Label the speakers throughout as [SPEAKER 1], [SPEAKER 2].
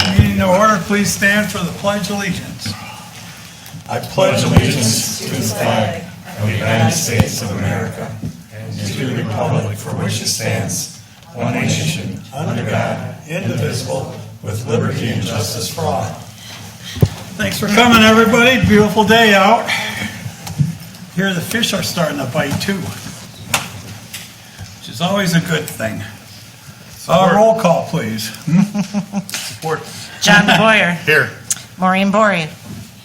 [SPEAKER 1] to order, please stand for the pledge allegiance.
[SPEAKER 2] I pledge allegiance to the flag of the United States of America and to the republic for which it stands, one nation, under God, indivisible, with liberty and justice for all.
[SPEAKER 1] Thanks for coming, everybody. Beautiful day out. Here, the fish are starting to bite too, which is always a good thing. Uh, roll call, please. Support.
[SPEAKER 3] John Boyer. Here. Maureen Bory.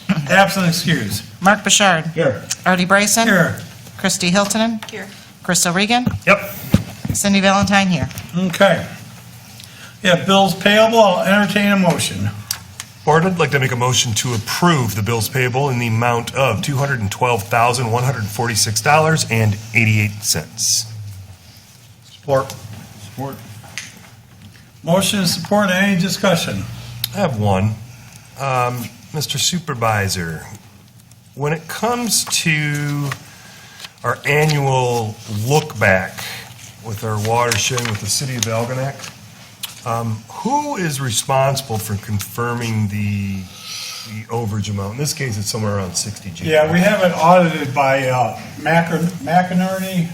[SPEAKER 1] Absent excuse.
[SPEAKER 3] Mark Bouchard.
[SPEAKER 1] Here.
[SPEAKER 3] Artie Bryson.
[SPEAKER 1] Here.
[SPEAKER 3] Christy Hiltonen. Here. Crystal Regan.
[SPEAKER 1] Yep.
[SPEAKER 3] Cindy Valentine here.
[SPEAKER 1] Okay. Yeah, bills payable, I'll entertain a motion.
[SPEAKER 4] Board, I'd like to make a motion to approve the bills payable in the amount of $212,146.88.
[SPEAKER 1] Support. Support. Motion and support, any discussion?
[SPEAKER 4] I have one. Um, Mr. Supervisor, when it comes to our annual look back with our watershed with the city of Algonac, um, who is responsible for confirming the the overage amount? In this case, it's somewhere around 60 G.
[SPEAKER 1] Yeah, we have it audited by uh, Macker- McInerney,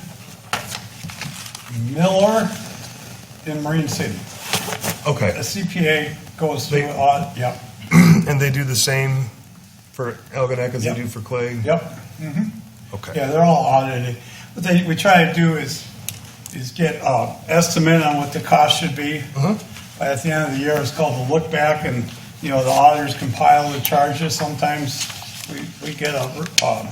[SPEAKER 1] Miller, in Marine City.
[SPEAKER 4] Okay.
[SPEAKER 1] A CPA goes through,
[SPEAKER 4] They-
[SPEAKER 1] audit. yep,
[SPEAKER 4] And they do the same for Algonac as they
[SPEAKER 1] Yep.
[SPEAKER 4] do for Clay?
[SPEAKER 1] yep.
[SPEAKER 4] Okay.
[SPEAKER 1] Yeah, they're all audited. What they, we try to do is, is get uh estimate on what the cost should be. But At the end of the year, it's called the look back and, you know, the auditors compile the charges. Sometimes we, we get a, um,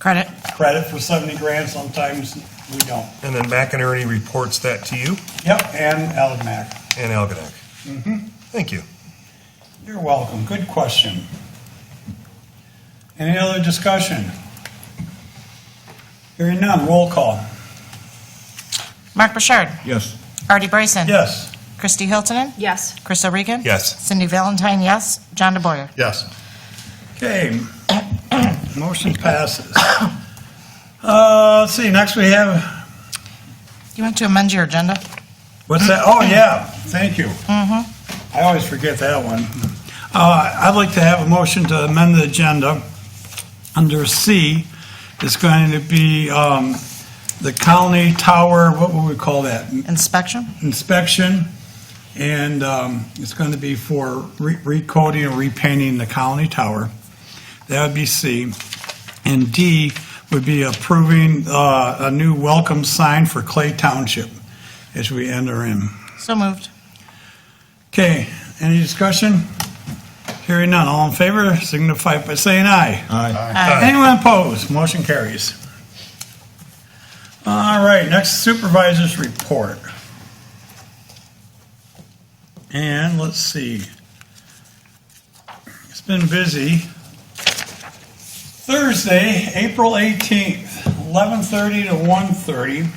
[SPEAKER 3] Credit.
[SPEAKER 1] credit for seventy grand, sometimes we don't.
[SPEAKER 4] And then McInerney reports that to you
[SPEAKER 1] Yep, and Elginak.
[SPEAKER 4] and Algonac? Mm-hmm. Thank you.
[SPEAKER 1] You're welcome. Good question. Any other discussion? Hearing none, roll call.
[SPEAKER 3] Mark Bouchard.
[SPEAKER 1] Yes.
[SPEAKER 3] Artie Bryson.
[SPEAKER 1] Yes.
[SPEAKER 3] Christy Hiltonen.
[SPEAKER 5] Yes.
[SPEAKER 3] Crystal Regan.
[SPEAKER 4] Yes.
[SPEAKER 3] Cindy Valentine, yes. John DeBoyer.
[SPEAKER 4] Yes.
[SPEAKER 1] Okay. Motion passes. Uh, let's see, next we have,
[SPEAKER 3] You want to amend your agenda?
[SPEAKER 1] what's that? Oh, yeah, thank you. I always forget that one. Uh, I'd like to have a motion to amend the agenda. Under C, it's going to be, um, the county tower, what would we call that?
[SPEAKER 3] Inspection?
[SPEAKER 1] inspection, and um, it's going to be for re- recoding or repainting the Colony Tower. That would be C. And D would be approving uh, a new welcome sign for Clay Township as we enter in.
[SPEAKER 3] So moved.
[SPEAKER 1] Okay, any discussion? Hearing none, all in favor signify by saying aye.
[SPEAKER 3] Aye.
[SPEAKER 1] Anyone opposed? Motion carries. All right, next supervisor's report. And let's see. It's been busy. Thursday, April 18th, 11:30 to 1:30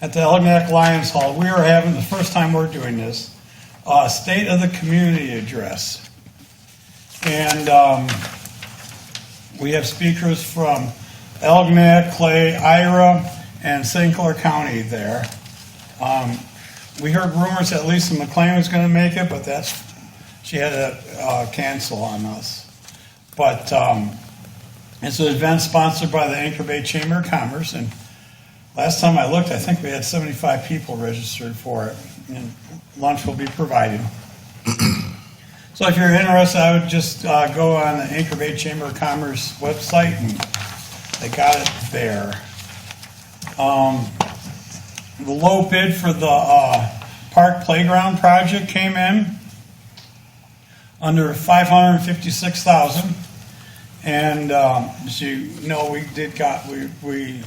[SPEAKER 1] at the Elginak Lions Hall. We are having, the first time we're doing this, uh, State of the Community Address. And, um, we have speakers from Elginak, Clay, Ira, and St. Clair County there. Um, We heard rumors that Lisa McLean was going to make it, but that's, she had to uh, cancel on us. But um, it's an event sponsored by the Anchor Bay Chamber of Commerce, and last time I looked, I think we had 75 people registered for it, and lunch will be provided. So if you're interested, I would just uh, go on the Anchor Bay Chamber of Commerce website, and they got it there. Um, The low bid for the uh, park playground project came in under 556000 And um, as you know, we did got, we we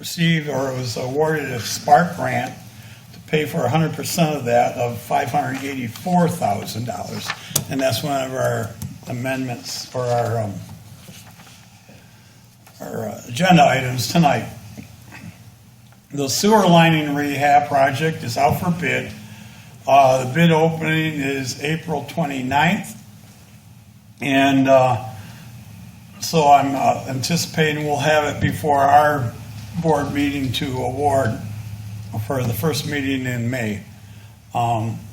[SPEAKER 1] received, or was awarded a Spark grant to pay for 100% of that of $584,000. And that's one of our amendments for our, um, our uh, agenda items tonight. The sewer lining rehab project is out for bid. Uh, The bid opening is April 29th. And uh, so I'm uh, anticipating we'll have it before our board meeting to award for the first meeting in May. Um,